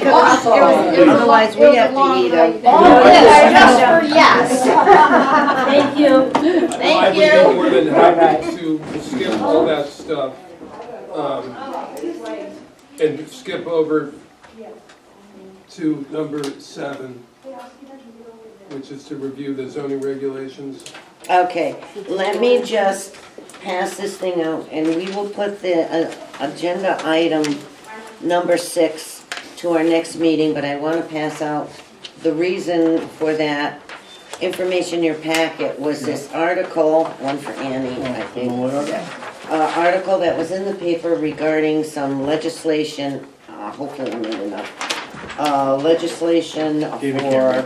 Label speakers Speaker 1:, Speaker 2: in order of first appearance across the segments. Speaker 1: It was- it was- it was a
Speaker 2: Otherwise,
Speaker 1: long-
Speaker 2: we
Speaker 1: it was a
Speaker 2: have to
Speaker 1: long
Speaker 2: eat
Speaker 1: night.
Speaker 2: them.
Speaker 1: All
Speaker 3: Yeah.
Speaker 1: this just for yes.
Speaker 3: Thank you.
Speaker 4: I
Speaker 3: Thank
Speaker 4: would be
Speaker 3: you.
Speaker 4: more than happy to skip all that stuff, um, and skip over to number seven, which is to review the zoning regulations.
Speaker 2: Okay, let me just pass this thing out, and we will put the uh, agenda item number six to our next meeting, but I want to pass out the reason for that information in your packet was this article, one for Annie, I think. Uh, Article that was in the paper regarding some legislation, uh, hopefully I'm reading enough, uh, legislation for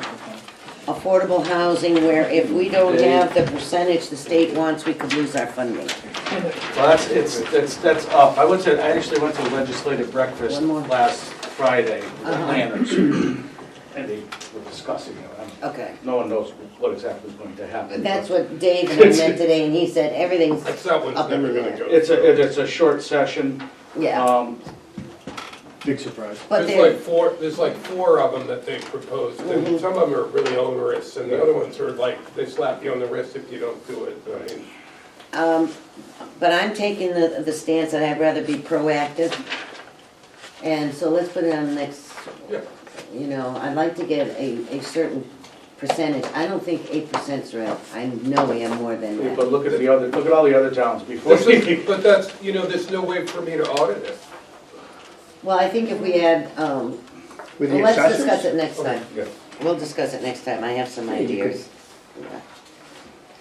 Speaker 2: affordable housing where if we don't have the percentage the state wants, we could lose our funding.
Speaker 5: Well, that's, it's, that's, that's up. I went to, I actually went to a legislative breakfast
Speaker 2: One more.
Speaker 5: last Friday with
Speaker 2: Uh-huh.
Speaker 5: planners. And they were discussing it. I'm-
Speaker 2: Okay.
Speaker 5: No one knows what exactly is going to happen.
Speaker 2: That's what Dave and I meant today, and he said everything's,
Speaker 4: That's that one's
Speaker 2: Up in
Speaker 4: never
Speaker 2: the
Speaker 4: gonna
Speaker 2: air.
Speaker 4: go.
Speaker 5: It's a, it- it's a short session.
Speaker 2: yeah,
Speaker 5: Um,
Speaker 6: Big surprise.
Speaker 2: but
Speaker 4: There's Uh, like
Speaker 2: there,
Speaker 4: four, there's like four of them that they proposed, and some of them are really onerous, and the other ones are like, they slap you on the wrist if you don't do it, I mean.
Speaker 2: um, but I'm taking the, the stance that I'd rather be proactive. And so let's put it on the next,
Speaker 4: Yeah.
Speaker 2: you know, I'd like to get a, a certain percentage. I don't think eight percent's right. I know we have more than that.
Speaker 5: But look at the other, look at all the other towns before.
Speaker 4: This is, but that's, you know, there's no way for me to audit it.
Speaker 2: Well, I think if we had, um,
Speaker 6: With the
Speaker 2: well, let's
Speaker 6: accessories?
Speaker 2: discuss it next time.
Speaker 5: Yeah.
Speaker 2: We'll discuss it next time, I have some ideas.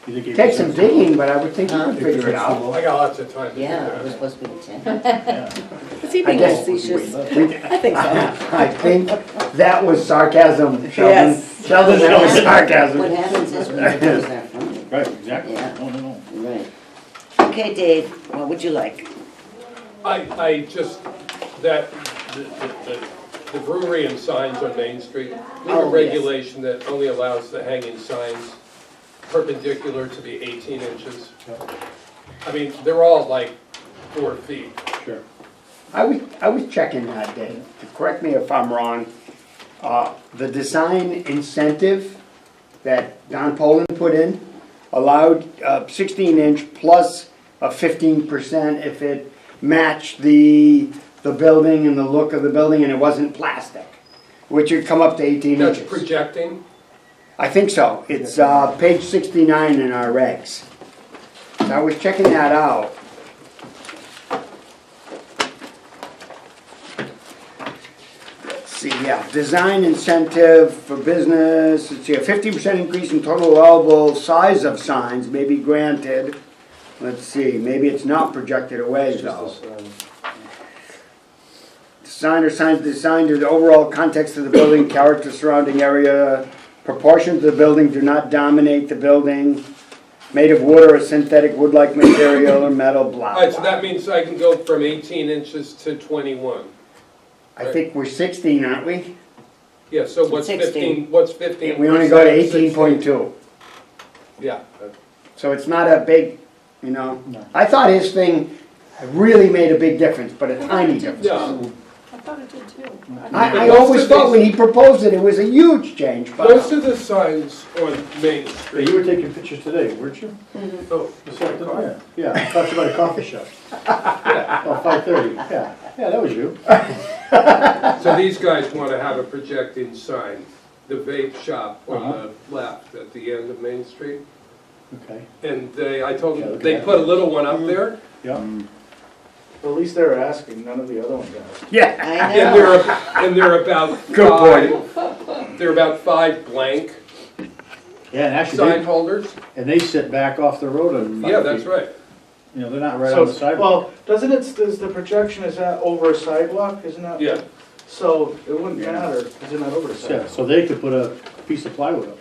Speaker 6: You think eight
Speaker 7: Take some
Speaker 6: percent's
Speaker 7: digging, but I would think you could
Speaker 6: If you're
Speaker 7: figure it
Speaker 6: at
Speaker 7: out.
Speaker 6: school.
Speaker 4: I got lots of time to do
Speaker 2: Yeah, it
Speaker 4: that.
Speaker 2: was supposed to be ten.
Speaker 8: Is he
Speaker 7: I
Speaker 8: being
Speaker 7: guess,
Speaker 8: facetious?
Speaker 7: I
Speaker 8: I think so.
Speaker 7: think that was sarcasm, Sheldon.
Speaker 8: Yes.
Speaker 7: Sheldon, that was
Speaker 2: What
Speaker 7: sarcasm.
Speaker 2: happens is we lose our funding,
Speaker 6: Right, exactly.
Speaker 2: Yeah.
Speaker 6: No, no, no.
Speaker 2: right. Okay, Dave, what would you like?
Speaker 4: I, I just, that, the- the, the the brewery and signs on Main Street, we have
Speaker 2: Oh,
Speaker 4: a
Speaker 2: yes.
Speaker 4: regulation that only allows the hanging signs perpendicular to be eighteen inches. I mean, they're all like four feet.
Speaker 6: Sure.
Speaker 7: I was, I was checking that day, correct me if I'm wrong. Uh, the design incentive that Don Poland put in allowed uh, sixteen inch plus a fifteen percent if it matched the, the building and the look of the building and it wasn't plastic, which would come up to eighteen
Speaker 4: That's
Speaker 7: inches.
Speaker 4: projecting,
Speaker 7: I think so. It's uh, page 69 in our regs. And I was checking that out. Let's see, yeah, design incentive for business, let's see, a 50% increase in total allowable size of signs may be granted. Let's see, maybe it's not projected away
Speaker 5: It's
Speaker 7: though.
Speaker 5: just this, um,
Speaker 7: Design or signs designed to the overall context of the building, character surrounding area, proportions of the building do not dominate the building, made of wood or a synthetic wood-like material or metal,
Speaker 4: All
Speaker 7: blah,
Speaker 4: right, so that
Speaker 7: blah.
Speaker 4: means I can go from eighteen inches to twenty-one.
Speaker 7: I think we're sixteen, aren't we?
Speaker 4: Yeah, so what's
Speaker 2: 16.
Speaker 4: fifteen, what's fifteen?
Speaker 7: We only go
Speaker 4: percent
Speaker 7: to
Speaker 4: of
Speaker 7: eighteen
Speaker 4: 16?
Speaker 7: point two,
Speaker 4: Yeah,
Speaker 7: so it's not a big, you know. I thought his thing really made a big difference, but a tiny difference.
Speaker 4: no,
Speaker 8: I thought it did too.
Speaker 7: I, I always thought when he proposed it, it was a huge change,
Speaker 4: most
Speaker 7: but
Speaker 4: of the signs on Main
Speaker 6: Hey,
Speaker 4: Street,
Speaker 6: you were taking pictures today, weren't you?
Speaker 4: oh,
Speaker 6: Just like the- Yeah, I talked about a coffee shop. Oh, five thirty, yeah. Yeah, that was you.
Speaker 4: So these guys want to have a projecting sign, the vape shop on the left at the end of Main Street.
Speaker 6: Okay,
Speaker 4: And they, I told them,
Speaker 6: Okay.
Speaker 4: they put a little one up there,
Speaker 6: yeah.
Speaker 5: At least they're asking, none of the other ones asked.
Speaker 7: yeah.
Speaker 2: I
Speaker 4: and
Speaker 2: know,
Speaker 4: they're, and they're about
Speaker 7: Good point.
Speaker 4: five, they're about five blank
Speaker 6: Yeah, and actually,
Speaker 4: sign
Speaker 6: they-
Speaker 4: holders.
Speaker 6: and they sit back off the road and.
Speaker 4: Yeah, that's right.
Speaker 6: You know, they're not right on the
Speaker 5: So,
Speaker 6: sidewalk.
Speaker 5: well, doesn't it, does the projection, is that over a sidewalk, isn't that?
Speaker 4: Yeah,
Speaker 5: So it wouldn't matter, because they're not over a
Speaker 6: Yeah,
Speaker 5: sidewalk.
Speaker 6: so they could put a piece of plywood up.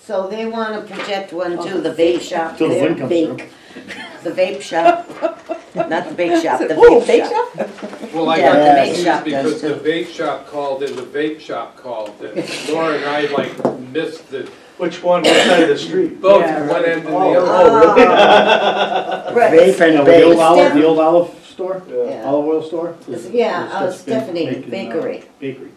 Speaker 2: so they wanna project one to the vape shop,
Speaker 6: Till the
Speaker 2: their
Speaker 6: wind comes through.
Speaker 2: bake, the vape shop, not the bake shop, the
Speaker 8: Ooh,
Speaker 2: vape shop.
Speaker 4: well, I
Speaker 2: Yeah,
Speaker 4: got
Speaker 2: the vape
Speaker 4: confused
Speaker 2: shop does
Speaker 4: because the
Speaker 2: too.
Speaker 4: vape shop called and the vape shop called. and Laura and I like missed the,
Speaker 5: Which one, which side of the street?
Speaker 4: both
Speaker 8: Yeah,
Speaker 4: one end and the
Speaker 5: Oh.
Speaker 4: other.
Speaker 2: Oh, Right,
Speaker 7: Vape and
Speaker 6: Yeah, with the old
Speaker 7: base.
Speaker 6: olive, the old olive store,
Speaker 2: Yeah.
Speaker 6: olive oil store?
Speaker 2: Yeah, uh,
Speaker 6: It's- it's been
Speaker 2: Stephanie,
Speaker 6: making, uh,
Speaker 2: bakery.
Speaker 6: Bakery.